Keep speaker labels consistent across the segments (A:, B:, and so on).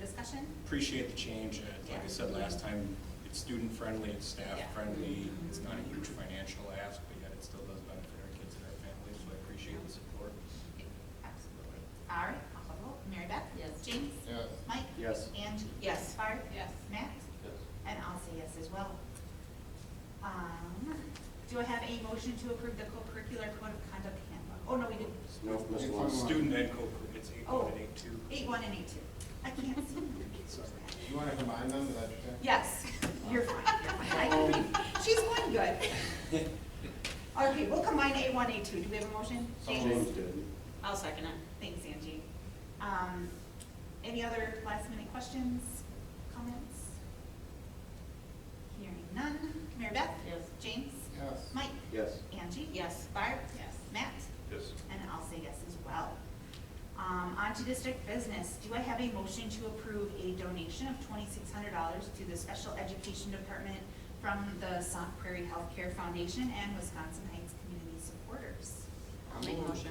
A: discussion?
B: Appreciate the change. Uh, Like I
A: Yeah.
B: said last time, it's student-friendly, it's
A: Yeah. Mm-hmm.
B: staff-friendly, it's not a huge financial ask, but yet it still does benefit our kids and our families, so I appreciate the support.
A: Absolutely. All right, I'll call the roll. Mary Beth?
C: Yes.
A: James?
D: Yes.
A: Mike?
E: Yes.
A: Angie?
C: Yes.
A: Barb?
C: Yes.
A: Matt? And I'll say yes as well. Um, do I have a motion to approve the co-curricular code of conduct handbook? Oh, no, we didn't.
E: No, Mr.
D: One more.
E: Long.
B: Student ed co, it's eight
A: Oh.
B: one and eight two.
A: Eight one and eight two. I can't see.
B: Sorry.
D: You want to combine them, is that okay?
A: Yes, you're fine, you're fine. I can read. She's going good. Okay, we'll combine A one, A two. Do we have a motion?
E: James did.
C: I'll second it.
A: Thanks, Angie. Um, any other last minute questions, comments? Hearing none. Mary Beth?
C: Yes.
A: James?
D: Yes.
A: Mike?
E: Yes.
A: Angie?
C: Yes.
A: Barb?
C: Yes.
A: Matt?
B: Yes.
A: And I'll say yes as well. Um, on to district business. Do I have a motion to approve a donation of twenty-six hundred dollars to the Special Education Department from the Sauk Prairie Healthcare Foundation and Wisconsin Heights Community Supporters?
C: I'll make motion.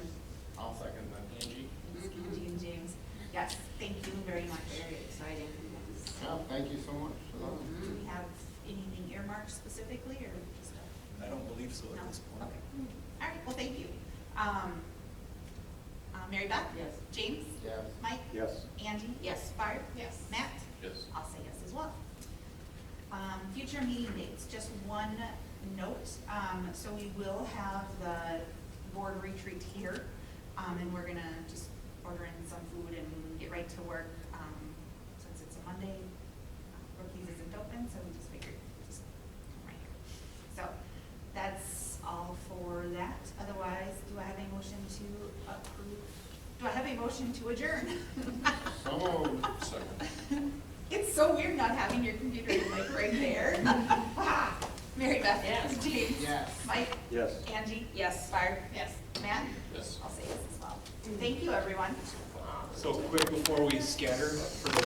D: I'll second that.
B: Angie?
A: It's Angie and James. Yes, thank you very much.
C: Very exciting. Yes.
D: Yeah, thank you so much for that.
A: Do we have anything earmarked specifically or just a?
B: I don't believe so
A: No?
B: at this point.
A: Okay. All right, well, thank you. Um, uh, Mary Beth?
C: Yes.
A: James?
D: Yes.
A: Mike?
E: Yes.
A: Angie?
C: Yes.
A: Barb?
C: Yes.
A: Matt?
D: Yes.
A: I'll say yes as well. Um, future meeting dates, just one note, um, so we will have the board retreat here, um, and we're gonna just order in some food and get right to work, um, since it's a Monday, uh, Brookings isn't open, so we just figured, just come right here. So, that's all for that, otherwise, do I have a motion to approve, do I have a motion to adjourn?
D: So moved. Second.
A: It's so weird not having your computer like right there. Mary Beth?
C: Yes.
A: James?
D: Yes.
A: Mike?
E: Yes.
A: Angie?
C: Yes.
A: Barb?
C: Yes.
A: Matt?
D: Yes.
A: I'll say yes as well. Thank you, everyone.
B: So quick before we scatter for the